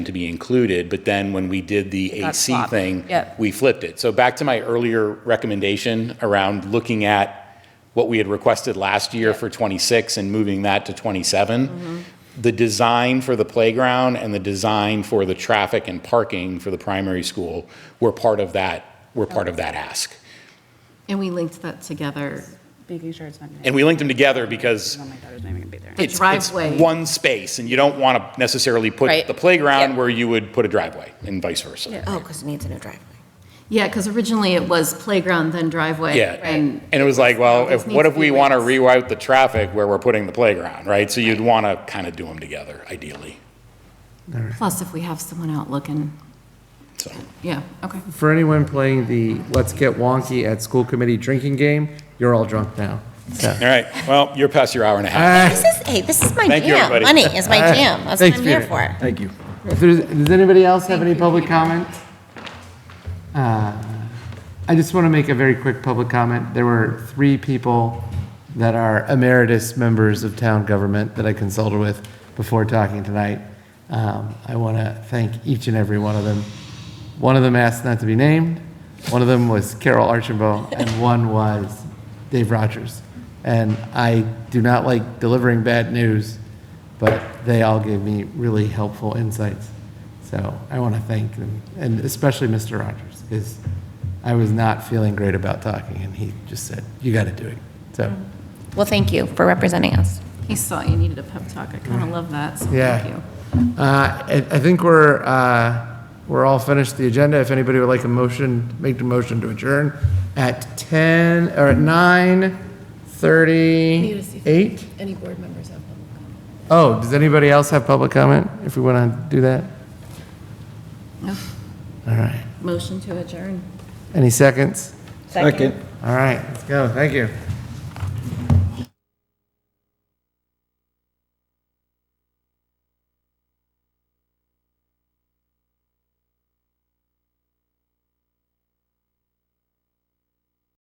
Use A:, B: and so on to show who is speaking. A: to be included, but then when we did the
B: Got
A: AC
B: swapped.
A: thing,
B: Yep.
A: we flipped it. So back to my earlier recommendation around looking at what we had requested last year for 26 and moving that to 27. The design for the playground and the design for the traffic and parking for the primary school were part of that, were part of that ask.
C: And we linked that together.
B: Making sure it's not.
A: And we linked them together because
B: Oh My daughter's not even gonna be there.
A: it's, it's
C: driveway.
A: one space and you don't want to necessarily put
B: Right.
A: the playground
B: Yep.
A: where you would put a driveway and vice versa.
D: Oh, because it needs a new driveway.
C: Yeah, because originally it was playground, then driveway.
A: Yeah,
C: And
A: and it was like, well,
C: This
A: if,
C: needs
A: what
C: to
A: if
C: be
A: we want to
C: raised.
A: reroute the traffic where we're putting the playground, right? So you'd want to kind of do them together, ideally,
C: plus if we have someone out looking,
A: so.
C: yeah, okay.
E: For anyone playing the let's get wonky at school committee drinking game, you're all drunk now. So-
A: All right, well, you're past your hour and a half.
E: Ah,
D: This is, hey, this is my
A: Thank you,
D: jam.
A: everybody.
D: Money is my jam. That's what
E: Thanks,
D: I'm here
E: Peter.
D: for.
F: Thank you.
E: If there's, does anybody else have any public comment? Uh, I just want to make a very quick public comment. There were three people that are emeritus members of town government that I consulted with before talking tonight. Um, I want to thank each and every one of them. One of them asked not to be named, one of them was Carol Archambault, and one was Dave Rogers. And I do not like delivering bad news, but they all gave me really helpful insights. So I want to thank them, and especially Mr. Rogers, because I was not feeling great about talking, and he just said, "You got to do it." So,
D: Well, thank you for representing us.
C: He saw you needed a pep talk. I kind of love that, so thank
E: yeah.
C: you.
E: Uh, I I think we're, uh, we're all finished the agenda. If anybody would like a motion, make the motion to adjourn at 10, or at 9:38?
G: Any board members have public
E: Oh, does anybody else have public comment, if we want to do that?
C: No.
E: All right.
C: Motion to adjourn.
E: Any seconds?
F: Second.
E: All right, let's go. Thank you.